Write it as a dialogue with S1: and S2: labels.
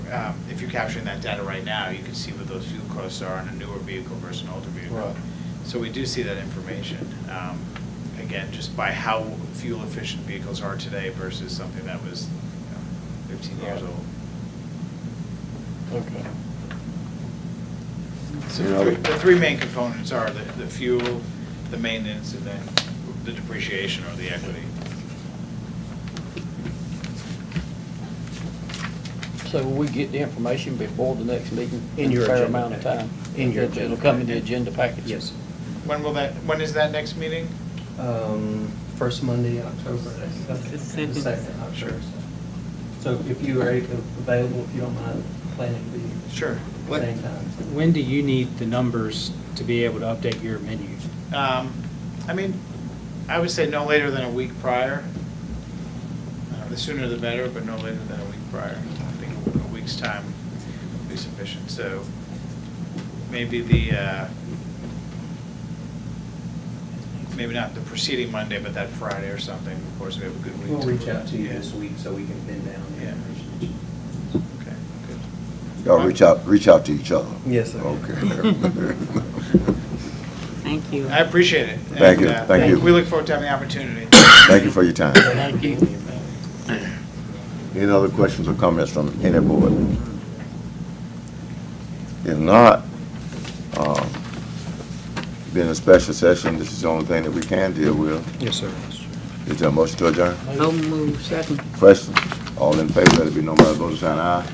S1: um, if you're capturing that data right now, you can see what those fuel costs are on a newer vehicle versus an older vehicle.
S2: Right.
S1: So we do see that information, um, again, just by how fuel efficient vehicles are today versus something that was you know, fifteen years
S2: Right.
S1: old.
S2: Okay.
S1: So
S3: Mm-hmm. You
S1: the
S3: know-
S1: three- the three main components are the, the fuel, the maintenance, and then the depreciation or the equity.
S4: So will we get the information before the next meeting?
S5: In your
S4: a Fair
S5: agenda
S4: amount of
S5: packet.
S4: time?
S5: In your
S4: It'll-
S5: agenda
S4: It'll come in the
S5: packet.
S4: agenda package?
S5: Yes.
S1: When will that, when is that next meeting?
S5: Um, First Monday in October. The
S6: second.
S5: I'm sure. So if you are available, if you don't mind planning to be
S1: Sure.
S5: at the same time.
S6: When do you need the numbers to be able to update your menu?
S1: Um, I mean, I would say no later than a week prior. Uh, The sooner the better, but no later than a week prior. I think a week's time would be sufficient, so maybe the, uh, maybe not the preceding Monday, but that Friday or something, of course, we have a good week.
S5: We'll
S1: to-
S5: reach out to you
S1: Yeah.
S5: this week so we can pin down the
S1: Yeah.
S5: information.
S1: Okay, good.
S3: Y'all reach out, reach out to each other.
S5: Yes, sir.
S3: Okay.
S7: Thank you.
S1: I appreciate it.
S3: Thank you,
S1: and, uh,
S3: thank you.
S1: We look forward to having the opportunity.
S3: Thank you for your time.
S4: Thank you.
S3: Any other questions or comments from any board? If not, um, being a special session, this is the only thing that we can deal with.
S6: Yes, sir.
S3: Is there a motion to adjourn?
S7: So move second.
S3: Question? All in favor, let it be known by the vote of saying aye.